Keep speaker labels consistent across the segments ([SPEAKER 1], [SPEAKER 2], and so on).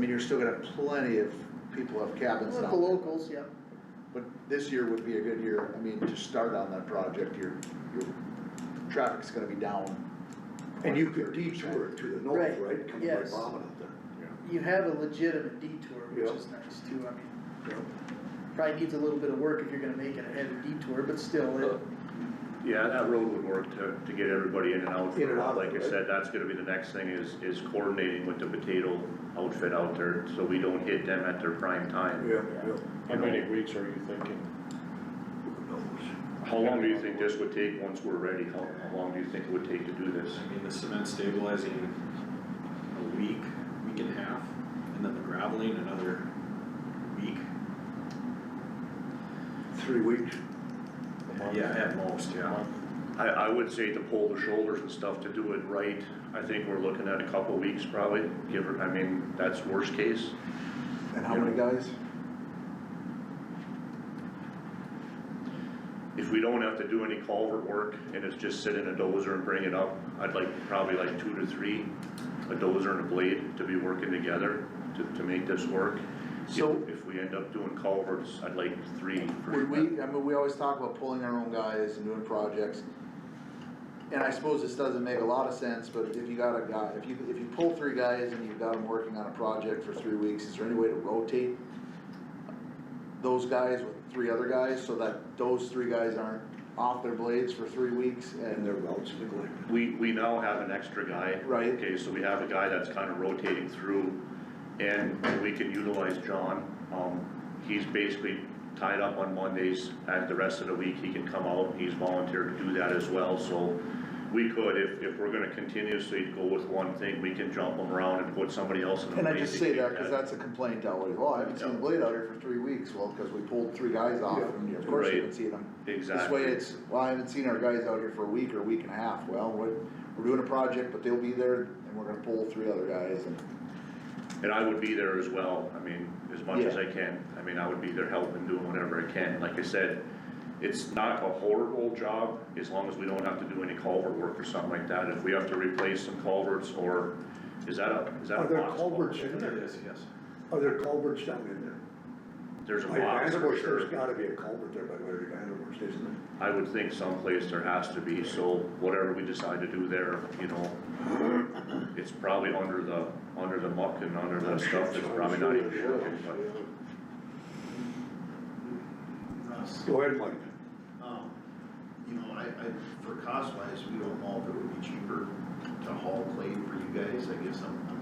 [SPEAKER 1] you're still gonna have plenty of people have cabins
[SPEAKER 2] With
[SPEAKER 1] down
[SPEAKER 2] the
[SPEAKER 1] there.
[SPEAKER 2] locals, yeah.
[SPEAKER 1] But this year would be a good year, I mean, to start on that project, your, your traffic's gonna be down.
[SPEAKER 3] And you could detour it to the north,
[SPEAKER 2] Right,
[SPEAKER 3] right, coming by
[SPEAKER 2] yes.
[SPEAKER 3] Bobbin out there.
[SPEAKER 2] You have a legitimate detour, which
[SPEAKER 3] Yeah.
[SPEAKER 2] is nice too, I mean, probably needs a little bit of work if you're gonna make it a heavy detour, but still, it,
[SPEAKER 4] Yeah, that road would work to, to get everybody in and out.
[SPEAKER 3] In and out,
[SPEAKER 4] Like I
[SPEAKER 3] right.
[SPEAKER 4] said, that's gonna be the next thing is, is coordinating with the potato outfit out there, so we don't hit them at their prime time.
[SPEAKER 3] Yeah, yeah.
[SPEAKER 5] How many weeks are you thinking?
[SPEAKER 3] Who knows?
[SPEAKER 4] How long do you think this would take once we're ready? How, how long do you think it would take to do this?
[SPEAKER 6] I mean, the cement stabilizing a week, week and a half, and then the graveling another week.
[SPEAKER 3] Three weeks,
[SPEAKER 6] Yeah, at most, yeah.
[SPEAKER 4] I, I would say to pull the shoulders and stuff to do it right, I think we're looking at a couple weeks probably, give or, I mean, that's worst case.
[SPEAKER 1] And how many guys?
[SPEAKER 4] If we don't have to do any culvert work and it's just sit in a dozer and bring it up, I'd like probably like two to three, a dozer and a blade to be working together to, to make this work.
[SPEAKER 1] So-
[SPEAKER 4] If- If we end up doing culverts, I'd like three. for-
[SPEAKER 1] Would we, I mean, we always talk about pulling our own guys and doing projects. And I suppose this doesn't make a lot of sense, but if you got a guy, if you, if you pull three guys and you've got them working on a project for three weeks, is there any way to rotate? Those guys with three other guys, so that those three guys aren't off their blades for three weeks
[SPEAKER 3] and
[SPEAKER 1] and
[SPEAKER 3] their routes neglected.
[SPEAKER 4] We, we now have an extra guy.
[SPEAKER 1] Right.
[SPEAKER 4] Okay, so we have a guy that's kind of rotating through, and we can utilize John. Um, he's basically tied up on Mondays, and the rest of the week, he can come out, he's volunteered to do that as well, so we could, if, if we're gonna continuously go with one thing, we can jump him around and put somebody else in a
[SPEAKER 1] And I
[SPEAKER 4] place
[SPEAKER 1] just
[SPEAKER 4] to
[SPEAKER 1] say
[SPEAKER 4] kick
[SPEAKER 1] that, cause that's a complaint out there, well, I haven't seen the
[SPEAKER 4] Yeah.
[SPEAKER 1] blade out here for three weeks, well, cause we pulled three guys off
[SPEAKER 3] Yeah.
[SPEAKER 1] and of course you
[SPEAKER 4] Right.
[SPEAKER 1] haven't seen them. This
[SPEAKER 4] Exactly.
[SPEAKER 1] way it's, well, I haven't seen our guys out here for a week or a week and a half, well, we're, we're doing a project, but they'll be there and we're gonna pull three other guys and.
[SPEAKER 4] And I would be there as well, I mean, as much as
[SPEAKER 1] Yeah.
[SPEAKER 4] I can, I mean, I would be there helping, doing whatever I can, like I said, it's not a horrible job, as long as we don't have to do any culvert work or something like that, if we have to replace some culverts, or, is that a, is that a
[SPEAKER 3] Are there
[SPEAKER 4] box
[SPEAKER 3] culverts
[SPEAKER 4] culvert?
[SPEAKER 3] in
[SPEAKER 6] There
[SPEAKER 3] there?
[SPEAKER 6] it is, yes.
[SPEAKER 3] Are there culverts down in there?
[SPEAKER 4] There's a
[SPEAKER 3] By
[SPEAKER 4] box, for
[SPEAKER 3] Vanderbush, there's
[SPEAKER 4] sure,
[SPEAKER 3] gotta be a culvert there by Larry Vanderbush, isn't there?
[SPEAKER 4] I would think someplace there has to be, so whatever we decide to do there, you know, it's probably under the, under the muck and under the stuff that's probably not even working, but.
[SPEAKER 3] Go ahead, Mike.
[SPEAKER 7] Um, you know, I, I, for cost wise, we don't know if it would be cheaper to haul clay for you guys, I guess I'm, I'm,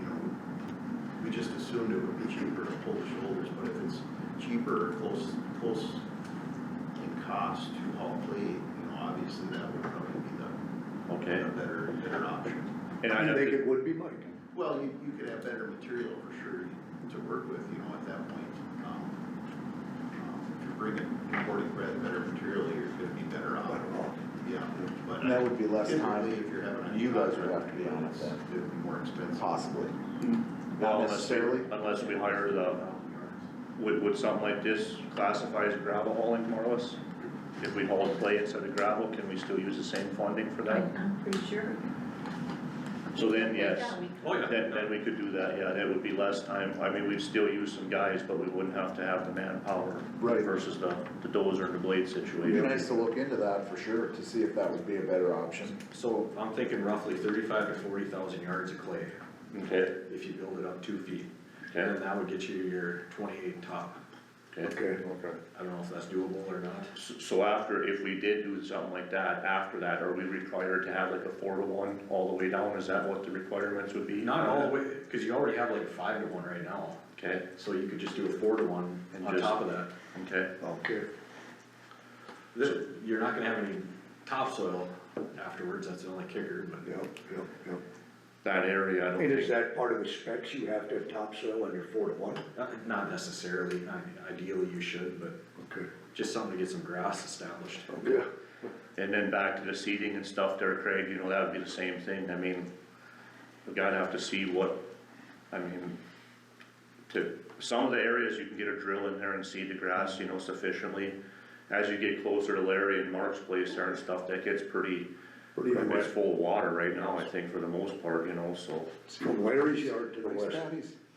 [SPEAKER 7] you know, we just assumed it would be cheaper to pull the shoulders, but if it's cheaper, or close, close in cost to haul clay, you know, obviously that would probably be the,
[SPEAKER 4] Okay.
[SPEAKER 7] the better, better option.
[SPEAKER 4] And I'd
[SPEAKER 3] You
[SPEAKER 4] have
[SPEAKER 3] think
[SPEAKER 4] to-
[SPEAKER 3] it would be Mike?
[SPEAKER 7] Well, you, you could have better material for sure to work with, you know, at that point. Um, um, If you're bringing, importing better, better material, you're gonna be better off.
[SPEAKER 3] Better off.
[SPEAKER 7] Yeah, but.
[SPEAKER 1] And that would be less time.
[SPEAKER 7] Typically, if you're having a.
[SPEAKER 1] You guys would have to be
[SPEAKER 7] contract,
[SPEAKER 1] on it then.
[SPEAKER 7] It would be more
[SPEAKER 4] Hmm.
[SPEAKER 7] expensive.
[SPEAKER 4] Well,
[SPEAKER 1] Not
[SPEAKER 4] unless we-
[SPEAKER 1] necessarily,
[SPEAKER 4] Unless we hire the,
[SPEAKER 7] Um,
[SPEAKER 4] would, would something like this classify as gravel hauling more or less? If we haul clay instead of gravel, can we still use the same funding for that?
[SPEAKER 8] I'm I'm pretty sure.
[SPEAKER 4] So then, yes,
[SPEAKER 8] Yeah, we-
[SPEAKER 6] Oh, yeah.
[SPEAKER 4] then, then we could do that, yeah, that would be less time, I mean, we'd still use some guys, but we wouldn't have to have the manpower.
[SPEAKER 1] Right.
[SPEAKER 4] Versus the, the dozer and the blade
[SPEAKER 1] It'd be
[SPEAKER 4] situation.
[SPEAKER 1] nice to look into that for sure, to see if that would be a better option.
[SPEAKER 6] So I'm thinking roughly thirty-five to forty thousand yards of clay
[SPEAKER 4] Okay,
[SPEAKER 6] if you build it up two feet.
[SPEAKER 4] Okay.
[SPEAKER 6] And then that would get you your twenty-eight top.
[SPEAKER 4] okay.
[SPEAKER 3] Okay.
[SPEAKER 1] Okay.
[SPEAKER 6] I don't know if that's doable or not.
[SPEAKER 4] S- So after, if we did do something like that, after that, are we required to have like a four to one all the way down? Is that what the requirements would be?
[SPEAKER 6] Not all the way, cause you already have like a five to one right now,
[SPEAKER 4] Okay,
[SPEAKER 6] so you could just do a four to one
[SPEAKER 4] And
[SPEAKER 6] on
[SPEAKER 4] just-
[SPEAKER 6] top of that.
[SPEAKER 4] okay.
[SPEAKER 3] Okay.
[SPEAKER 6] Th- You're not gonna have any topsoil afterwards, that's the only kicker, but.
[SPEAKER 3] Yep, yep, yep.
[SPEAKER 4] that area, I don't
[SPEAKER 3] And is
[SPEAKER 4] think,
[SPEAKER 3] that part of the specs, you have to have topsoil on your four to one?
[SPEAKER 6] Not- Not necessarily, I mean, ideally you should, but
[SPEAKER 3] Okay.
[SPEAKER 6] just something to get some grass established.
[SPEAKER 3] Yeah.
[SPEAKER 4] and then back to the seeding and stuff there, Craig, you know, that would be the same thing, I mean, we gotta have to see what, I mean, to, some of the areas you can get a drill in there and seed the grass, you know, sufficiently. As you get closer to Larry and Mark's place there and stuff, that gets pretty,
[SPEAKER 3] Pretty
[SPEAKER 4] it's
[SPEAKER 3] wet.
[SPEAKER 4] full of water right now, I think, for the most part, you know, so.
[SPEAKER 3] From Larry's yard to the
[SPEAKER 1] Nice
[SPEAKER 3] west,
[SPEAKER 1] patties.